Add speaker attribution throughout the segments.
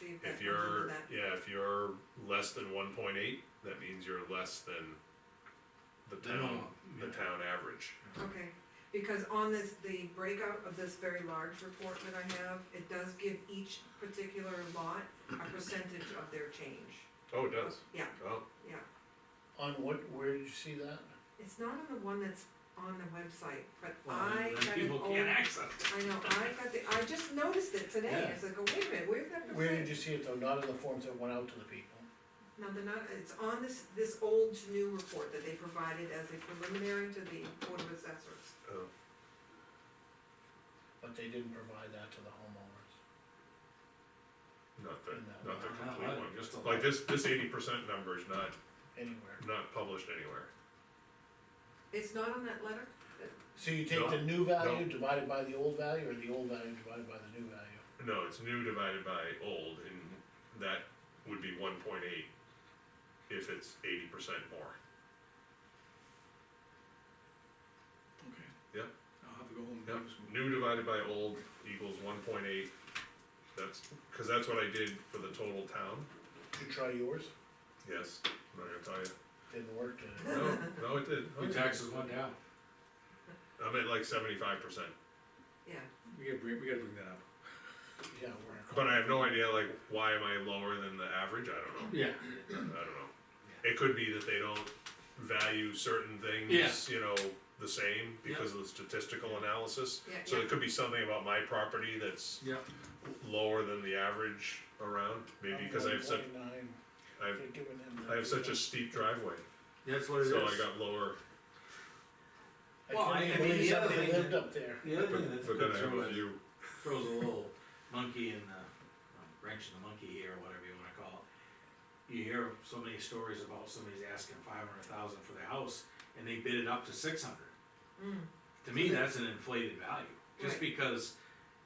Speaker 1: see if that
Speaker 2: If
Speaker 1: comes under
Speaker 2: you're,
Speaker 1: that.
Speaker 2: yeah, if you're less than one point eight, that means you're less than the
Speaker 3: The
Speaker 2: town,
Speaker 3: norm,
Speaker 2: the
Speaker 3: yeah.
Speaker 2: town average.
Speaker 1: Okay, because on this, the breakout of this very large report that I have, it does give each particular lot a percentage of their change.
Speaker 2: Oh, it does?
Speaker 1: Yeah,
Speaker 2: Oh,
Speaker 1: yeah.
Speaker 4: On what, where did you see that?
Speaker 1: It's not on the one that's on the website, but
Speaker 3: Well,
Speaker 1: I
Speaker 3: then
Speaker 1: got an
Speaker 3: people
Speaker 1: old,
Speaker 3: can't
Speaker 1: I
Speaker 3: access. it.
Speaker 1: know, I got the, I just noticed it today,
Speaker 4: Yeah.
Speaker 1: it's like, oh, wait a minute, where's that percent?
Speaker 4: Where did you see it though? Not in the forms that went out to the people?
Speaker 1: No, they're not, it's on this, this old to new report that they provided as a preliminary to the Board of Assessors.
Speaker 2: oh,
Speaker 4: But they didn't provide that to the homeowners.
Speaker 2: not the,
Speaker 4: No.
Speaker 2: not the
Speaker 3: No,
Speaker 2: complete
Speaker 3: I-
Speaker 2: one, just
Speaker 3: the
Speaker 2: like
Speaker 3: lot.
Speaker 2: this, this eighty percent number is not,
Speaker 4: Anywhere.
Speaker 2: not published anywhere.
Speaker 1: It's not on that letter?
Speaker 4: So you take the
Speaker 2: No,
Speaker 4: new value
Speaker 2: no.
Speaker 4: divided by the old value, or the old value divided by the new value?
Speaker 2: No, it's new divided by old, and that would be one point eight if it's eighty percent more.
Speaker 3: Okay.
Speaker 2: Yep.
Speaker 3: I'll have to go home and
Speaker 2: Yep,
Speaker 3: do some.
Speaker 2: new divided by old equals one point eight, that's, cause that's what I did for the total town,
Speaker 4: Did you try yours?
Speaker 2: yes, I'm not gonna tell you.
Speaker 4: Didn't work, did it?
Speaker 2: No, no, it did.
Speaker 3: My taxes went down.
Speaker 2: I'm at like seventy-five percent,
Speaker 1: Yeah,
Speaker 3: We gotta bring, we gotta bring that up.
Speaker 4: Yeah, it worked.
Speaker 2: but I have no idea like why am I lower than the average, I don't know,
Speaker 3: Yeah.
Speaker 2: I don't know. It could be that they don't value certain
Speaker 3: Yeah.
Speaker 2: things, you know, the same because of the statistical analysis.
Speaker 1: yeah,
Speaker 2: So
Speaker 1: yeah,
Speaker 2: it could be something about my property that's
Speaker 3: Yeah.
Speaker 2: lower than the average around, maybe because I have such, I have, I have such a steep driveway,
Speaker 3: That's what it is.
Speaker 2: so I got lower.
Speaker 4: Well, I can't even believe
Speaker 3: the other
Speaker 4: somebody
Speaker 3: thing-
Speaker 4: lived up there.
Speaker 3: The other thing that's
Speaker 2: But then I have a
Speaker 3: concerning
Speaker 2: few,
Speaker 3: throws a little monkey in the, um, wrench in the monkey here, or whatever you wanna call it. You hear so many stories about somebody's asking five hundred thousand for their house, and they bid it up to six hundred.
Speaker 1: mm,
Speaker 3: To me, that's an inflated value, just
Speaker 1: Right.
Speaker 3: because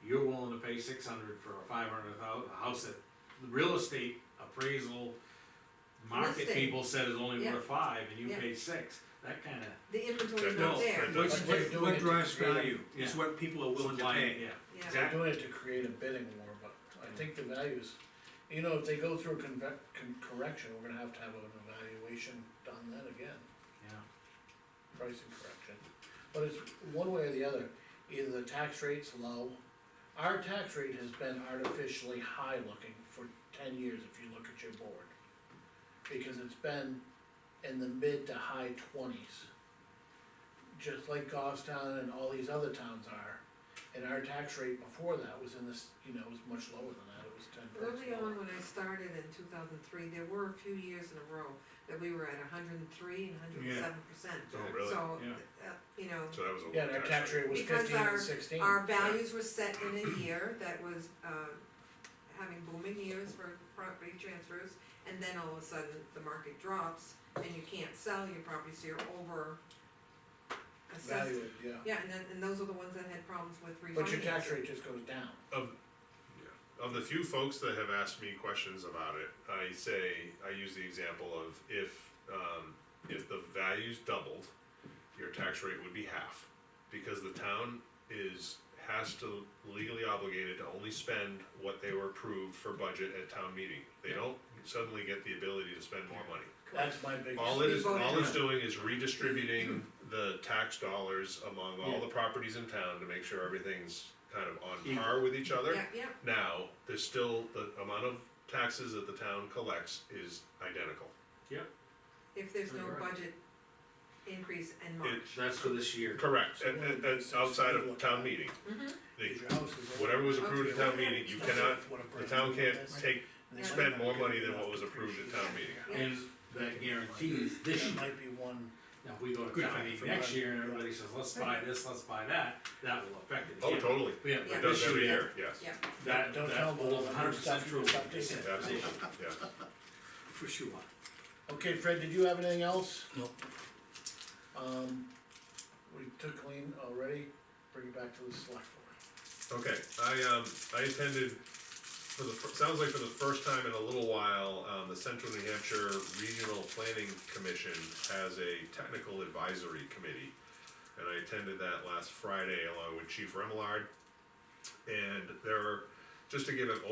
Speaker 3: you're willing to pay six hundred for a five hundred thousand, a house that the real estate appraisal market
Speaker 1: Listing.
Speaker 3: people said is only
Speaker 1: Yeah.
Speaker 3: worth five, and you
Speaker 1: Yeah.
Speaker 3: paid six, that kinda.
Speaker 1: the inventory's
Speaker 2: No,
Speaker 1: not there,
Speaker 2: that
Speaker 5: What's,
Speaker 4: But they're
Speaker 5: what,
Speaker 4: doing it
Speaker 5: what
Speaker 4: to
Speaker 5: drives
Speaker 4: create a-
Speaker 5: value is
Speaker 3: yeah.
Speaker 5: what people are willing to
Speaker 3: supply-
Speaker 5: pay.
Speaker 3: Yeah,
Speaker 1: yeah.
Speaker 4: They're
Speaker 3: exactly.
Speaker 4: doing it to create a bidding war, but I think the values, you know, if they go through a conve- con- correction, we're gonna have to have an evaluation done then again.
Speaker 3: yeah,
Speaker 4: pricing correction. But it's one way or the other, either the tax rate's low, our tax rate has been artificially high looking for ten years if you look at your board. Because it's been in the mid to high twenties. Just like Goffstown and all these other towns are, and our tax rate before that was in this, you know, was much lower than that, it was ten
Speaker 1: Early
Speaker 4: percent.
Speaker 1: on, when I started in two thousand three, there were a few years in a row that we were at hundred and three and hundred and seven percent.
Speaker 2: oh really,
Speaker 1: So, uh,
Speaker 3: Yeah.
Speaker 1: you know,
Speaker 2: so that was a low
Speaker 4: Yeah, and our tax rate was
Speaker 1: Because
Speaker 4: fifteen and
Speaker 1: our-
Speaker 4: sixteen.
Speaker 1: our values were set in a year that was, uh, having booming years for property transfers, and then all of a sudden, the market drops, and you can't sell your property, so you're over assessed.
Speaker 4: Valued, yeah,
Speaker 1: Yeah, and then, and those are the ones that had problems with refinancing.
Speaker 4: but your tax rate just goes down.
Speaker 2: Of, yeah, of the few folks that have asked me questions about it, I say, I use the example of if, um, if the values doubled, your tax rate would be half. Because the town is, has to legally obligated to only spend what they were approved for budget at town meeting. They don't suddenly get the ability to spend more money.
Speaker 4: That's my biggest.
Speaker 2: All it is,
Speaker 1: We voted
Speaker 2: all it's
Speaker 3: on.
Speaker 2: doing is redistributing the tax dollars among all the properties in town to make sure everything's kind of on
Speaker 3: Equal.
Speaker 2: par with each
Speaker 1: Yeah,
Speaker 2: other.
Speaker 1: yeah,
Speaker 2: Now, there's still, the amount of taxes that the town collects is identical.
Speaker 1: if there's no
Speaker 3: You're right.
Speaker 1: budget increase in March.
Speaker 2: It-
Speaker 3: that's for this year.
Speaker 2: Correct, and, and, and outside of town meeting.
Speaker 1: Mhm.
Speaker 2: They-
Speaker 4: Your house is-
Speaker 2: Whatever was approved at town meeting, you cannot, the town can't take,
Speaker 4: They
Speaker 2: spend
Speaker 4: might
Speaker 2: more
Speaker 4: not
Speaker 2: money
Speaker 4: get
Speaker 2: than what
Speaker 4: enough
Speaker 2: was
Speaker 4: to
Speaker 2: approved at
Speaker 4: appreciate
Speaker 2: town meeting.
Speaker 3: And that guarantees
Speaker 4: it.
Speaker 3: this year.
Speaker 4: That might be one,
Speaker 3: Now, if we go to
Speaker 5: Good
Speaker 3: town
Speaker 5: for-
Speaker 3: meeting
Speaker 4: for
Speaker 3: next
Speaker 4: one.
Speaker 3: year and everybody says, let's buy this, let's buy that, that will affect it.
Speaker 2: Oh,
Speaker 3: again.
Speaker 2: totally,
Speaker 1: Yeah.
Speaker 3: Yeah,
Speaker 2: it
Speaker 3: but
Speaker 2: does
Speaker 3: this
Speaker 2: every
Speaker 3: year,
Speaker 2: year, yes,
Speaker 1: Yeah,
Speaker 3: that,
Speaker 4: Don't tell
Speaker 3: that
Speaker 4: them all
Speaker 3: will
Speaker 4: the
Speaker 3: hundred percent
Speaker 4: stuff you
Speaker 3: true.
Speaker 4: stuffed in there.
Speaker 2: absolutely, yeah.
Speaker 5: For sure.
Speaker 4: okay, Fred, did you have anything else?
Speaker 5: No.
Speaker 4: Um, we took clean already, bring it back to the select board.
Speaker 2: Okay, I, um, I attended, for the, fir- sounds like for the first time in a little while, um, the Central New Hampshire Regional Planning Commission has a technical advisory committee. And I attended that last Friday along with Chief Remillard. And there are, just to give an